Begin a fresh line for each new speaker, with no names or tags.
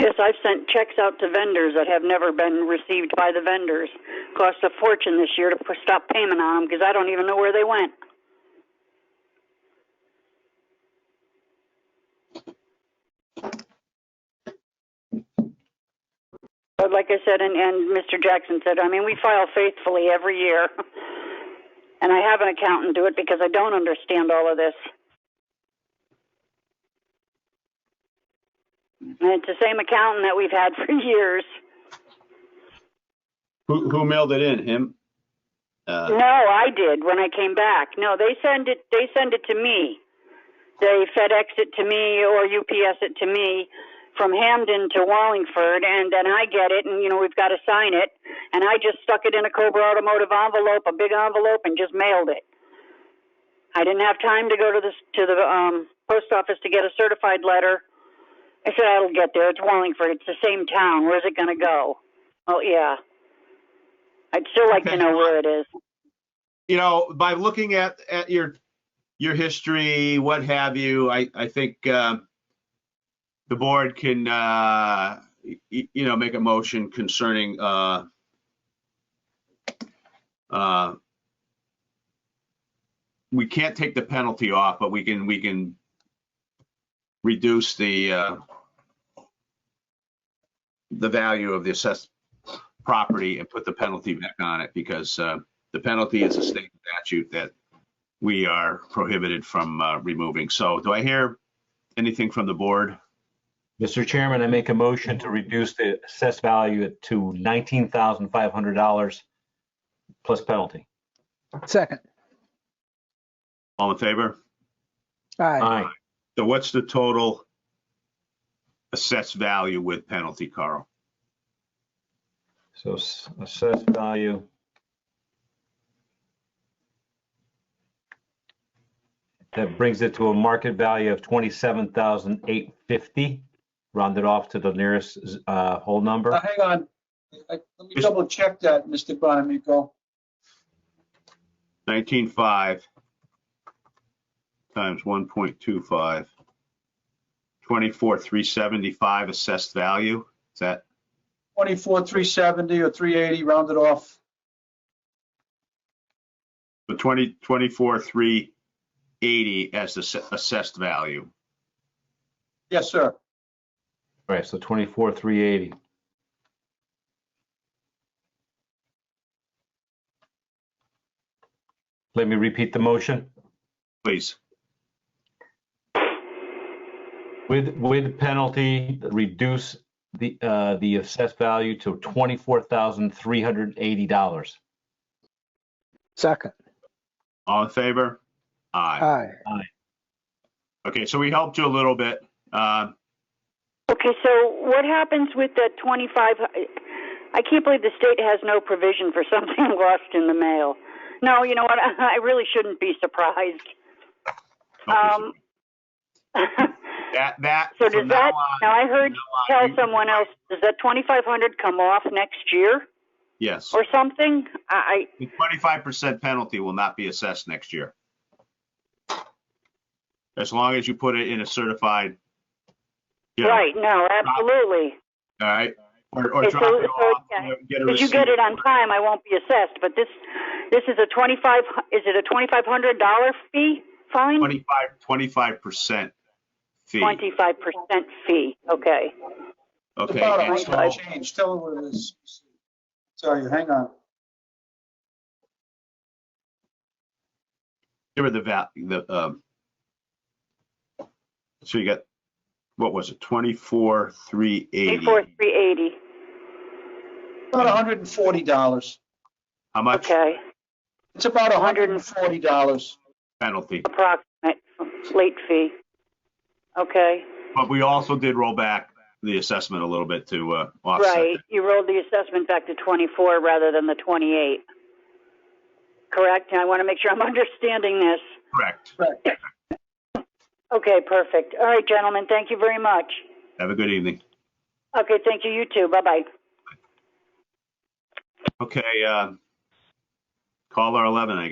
Yes, I've sent checks out to vendors that have never been received by the vendors. Cost a fortune this year to p- stop payment on them because I don't even know where they went. But like I said, and, and Mr. Jackson said, I mean, we file faithfully every year. And I have an accountant do it because I don't understand all of this. And it's the same accountant that we've had for years.
Who, who mailed it in? Him? Uh,
No, I did when I came back. No, they send it. They send it to me. They FedEx it to me or UPS it to me from Hamden to Wallingford, and then I get it, and you know we've got to sign it, and I just stuck it in a Cobra Automotive envelope, a big envelope, and just mailed it. I didn't have time to go to the to the um, post office to get a certified letter. I said I'll get there. It's Wallingford. It's the same town. Where's it going to go? Oh yeah. I'd still like to know where it is.
you know, by looking at, at your, your history, what have you, I, I think, um, the board can, uh, y- y- you know, make a motion concerning, uh, uh, we can't take the penalty off, but we can, we can reduce the, uh, the value of the assessed property and put the penalty back on it because, uh, the penalty is a state statute that we are prohibited from uh, removing. So do I hear anything from the board?
Mr. Chairman, I make a motion to reduce the assessed value to nineteen thousand five hundred dollars plus penalty.
Second.
All in favor?
Aye.
Aye.
So what's the total assessed value with penalty, Carl?
So s- assessed value. That brings it to a market value of twenty-seven thousand eight fifty, rounded off to the nearest uh, whole
Now,
number.
hang on. I- I- Let me
Mr.
double check that, Mr. Bonamico.
19.5 times 1.25, 24,375 assessed value. Is that,
24, 370 or 380 rounded off.
the 20, 24,380 as the se- assessed value.
Yes, sir.
All right, so twenty-four, three eighty. Let me repeat the motion.
Please.
With, with penalty, reduce the, uh, the assessed value to twenty-four thousand three hundred eighty dollars.
Second.
All in favor? Aye.
Aye.
Okay, so we helped you a little bit. Uh,
Okay, so what happens with that 25? I can't believe the state has no provision for something lost in the mail. No, you know what? I really shouldn't be surprised. Um,
That, that,
so does
from now
that?
on-
Now I heard
from now
tell
on, you-
someone else. Does that 2,500 come off next year
Yes,
or something? I,
the 25% penalty will not be assessed next year. As long as you put it in a certified,
I
you know,
right? No, absolutely.
all right? Or, or
Okay,
drop
so-
it
so,
off.
yeah,
or get a
If you get
receipt.
it on time, I won't be assessed. But this, this is a 25. Is it a 2,500 dollar fee? Fine.
25, 25% fee.
Twenty-five percent fee, okay.
The
Okay,
bottom
and so,
line will change. Tell her what it is. Tell you, hang on.
give her the val, the, um, so you got, what was it, 24,380?
Twenty-four, three eighty,
About $140.
How much
okay,
It's about $140.
penalty?
approximate, late fee. Okay,
But we also did roll back the assessment a little bit to uh, offset.
right, you rolled the assessment back to twenty-four rather than the twenty-eight. Correct, I want to make sure I'm understanding this.
that. Correct.
Okay, perfect, all right, gentlemen, thank you very much.
Have a good evening.
Okay, thank you, you too, bye-bye.
Okay, uh, caller 11, I